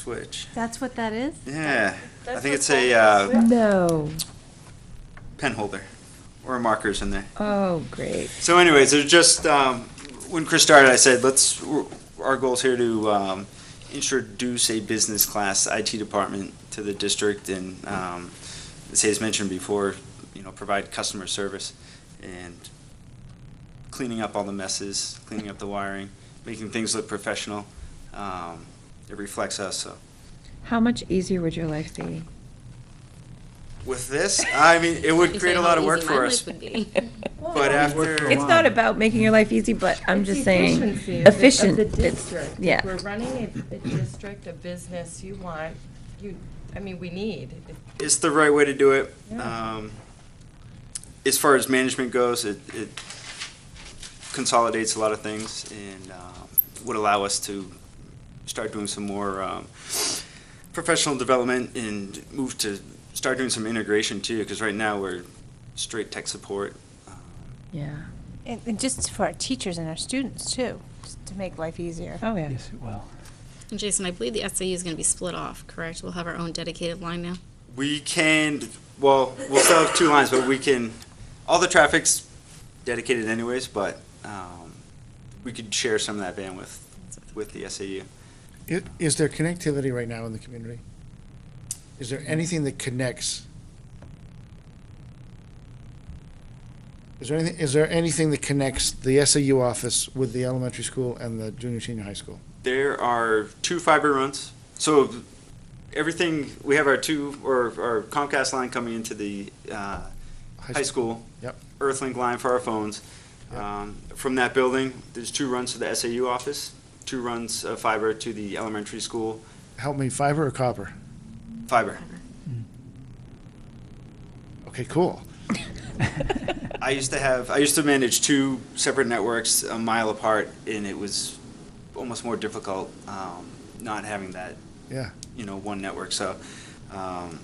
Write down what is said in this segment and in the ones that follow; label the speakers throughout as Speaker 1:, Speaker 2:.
Speaker 1: switch.
Speaker 2: That's what that is?
Speaker 1: Yeah, I
Speaker 3: That's
Speaker 1: think
Speaker 3: what
Speaker 1: it's a
Speaker 3: Paul
Speaker 1: uh,
Speaker 3: does.
Speaker 4: No.
Speaker 1: pen holder or markers in there.
Speaker 4: Oh, great.
Speaker 1: So anyways, there's just, um, when Chris started, I said, let's, our goal's here to, um, introduce a business class IT department to the district and, um, as Hayes mentioned before, you know, provide customer service and cleaning up all the messes, cleaning up the wiring, making things look professional. Um, it reflects us, so.
Speaker 4: How much easier would your life be?
Speaker 1: With this, I mean, it would
Speaker 5: You
Speaker 1: create
Speaker 5: say
Speaker 1: a
Speaker 5: how
Speaker 1: lot of work
Speaker 5: easy my
Speaker 1: for
Speaker 5: life
Speaker 1: us,
Speaker 5: would be.
Speaker 1: but after.
Speaker 4: It's not about making your life easy, but I'm
Speaker 3: It's
Speaker 4: just
Speaker 3: the
Speaker 4: saying.
Speaker 3: efficiency of the-
Speaker 4: efficient.
Speaker 3: Of the
Speaker 4: It's-
Speaker 3: district.
Speaker 4: Yeah.
Speaker 3: We're running a, a district, a business you want, you, I mean, we need.
Speaker 1: it's the right way to do it.
Speaker 3: Yeah.
Speaker 1: Um, as far as management goes, it, it consolidates a lot of things and um would allow us to start doing some more um, professional development and move to start doing some integration too. Because right now we're straight tech support. Um,
Speaker 4: Yeah.
Speaker 2: And, and just for our teachers and our students too, just to make life easier.
Speaker 4: Oh, yeah.
Speaker 6: Yes, it will.
Speaker 5: And Jason, I believe the SAU is going to be split off, correct? We'll have our own dedicated line now.
Speaker 1: We can, well, we'll still have two lines, but we can, all the traffic's dedicated anyways, but um, we could share some of that bandwidth with the SAU.
Speaker 7: I- Is there connectivity right now in the community? Is there anything that connects? Is there anything, is there anything that connects the SAU office with the elementary school and the junior, senior high school?
Speaker 1: There are two fiber runs. So everything, we have our two, or our Comcast line coming into the uh, high school.
Speaker 7: Yep.
Speaker 1: Earthlink line for our phones.
Speaker 7: Yep.
Speaker 1: Um, From that building, there's two runs to the SAU office, two runs of fiber to the elementary school,
Speaker 7: Help me, fiber or copper?
Speaker 1: fiber.
Speaker 7: Okay, cool.
Speaker 1: I used to have, I used to manage two separate networks a mile apart, and it was almost more difficult um, not having that,
Speaker 7: Yeah.
Speaker 1: you know, one network. So, um,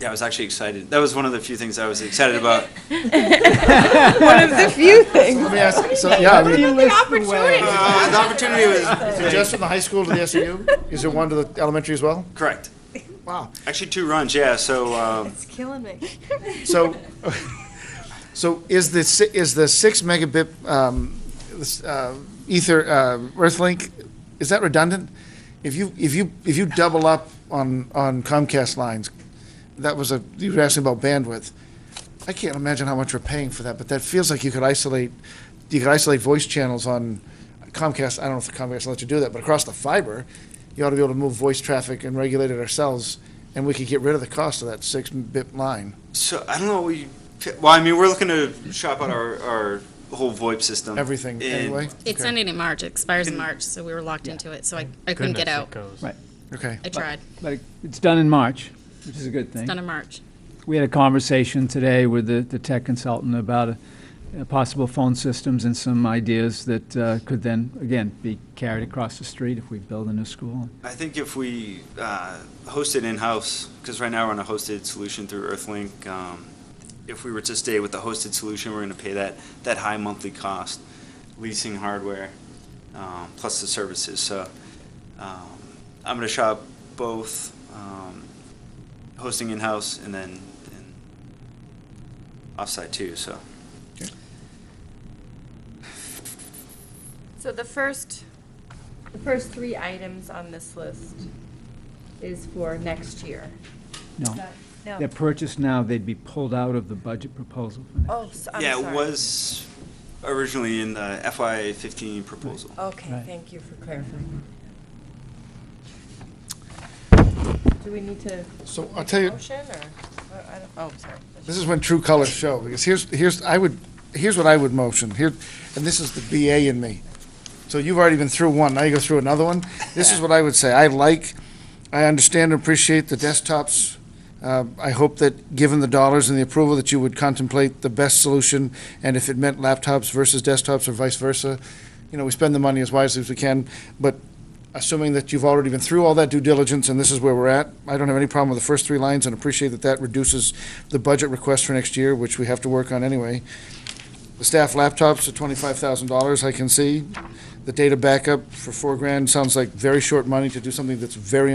Speaker 1: yeah, I was actually excited. That was one of the few things I was excited about.
Speaker 4: One of the few things.
Speaker 7: Let me ask, so, yeah, I mean,
Speaker 1: Uh, the opportunity was
Speaker 7: is it just from the high school to the SAU? Is there one to the elementary as well?
Speaker 1: correct.
Speaker 7: Wow.
Speaker 1: Actually, two runs, yeah. So, um,
Speaker 2: It's killing me.
Speaker 7: So, so is the, si- is the six megabit um, this, uh, Ether, uh, Earthlink, is that redundant? If you, if you, if you double up on, on Comcast lines, that was a, you were asking about bandwidth. I can't imagine how much we're paying for that, but that feels like you could isolate, you could isolate voice channels on Comcast, I don't know if Comcast lets you do that, but across the fiber, you ought to be able to move voice traffic and regulate it ourselves, and we could get rid of the cost of that six bit line.
Speaker 1: so I don't know. We, well, I mean, we're looking to shop out our, our whole VoIP system.
Speaker 7: everything
Speaker 1: And-
Speaker 7: anyway?
Speaker 5: It's
Speaker 7: Okay.
Speaker 5: ended in March, it expires in March, so we were locked into it, so I, I couldn't get out.
Speaker 6: Right,
Speaker 7: Okay.
Speaker 5: I tried,
Speaker 6: but it- it's done in March, which is a good thing.
Speaker 5: done in March.
Speaker 6: We had a conversation today with the, the tech consultant about uh, uh, possible phone systems and some ideas that uh, could then, again, be carried across the street if we build a new school.
Speaker 1: I think if we uh, host it in-house, because right now we're on a hosted solution through Earthlink, um, if we were to stay with the hosted solution, we're going to pay that, that high monthly cost, leasing hardware, um, plus the services. So um, I'm going to shop both um, hosting in-house and then and offsite too, so.
Speaker 3: So the first, the first three items on this list is for next year.
Speaker 6: No,
Speaker 2: No.
Speaker 6: they're purchased now, they'd be pulled out of the budget proposal. for next-
Speaker 3: Oh, so, I'm
Speaker 1: Yeah,
Speaker 3: sorry.
Speaker 1: it was originally in the FY15 proposal.
Speaker 3: Okay,
Speaker 6: Right.
Speaker 3: thank you for clarifying. Do we need to?
Speaker 7: So I'll
Speaker 3: make a
Speaker 7: tell you-
Speaker 3: Motion or, I don't, oh, sorry.
Speaker 7: This is when true colors show, because here's, here's, I would, here's what I would motion, here, and this is the BA in me. So you've already been through one, now you go through another one. This is what I would say, I like, I understand and appreciate the desktops. Uh, I hope that, given the dollars and the approval, that you would contemplate the best solution, and if it meant laptops versus desktops or vice versa. You know, we spend the money as wisely as we can, but assuming that you've already been through all that due diligence and this is where we're at, I don't have any problem with the first three lines and appreciate that that reduces the budget request for next year, which we have to work on anyway. The staff laptops are twenty-five thousand dollars, I can see. The data backup for four grand sounds like very short money to do something that's very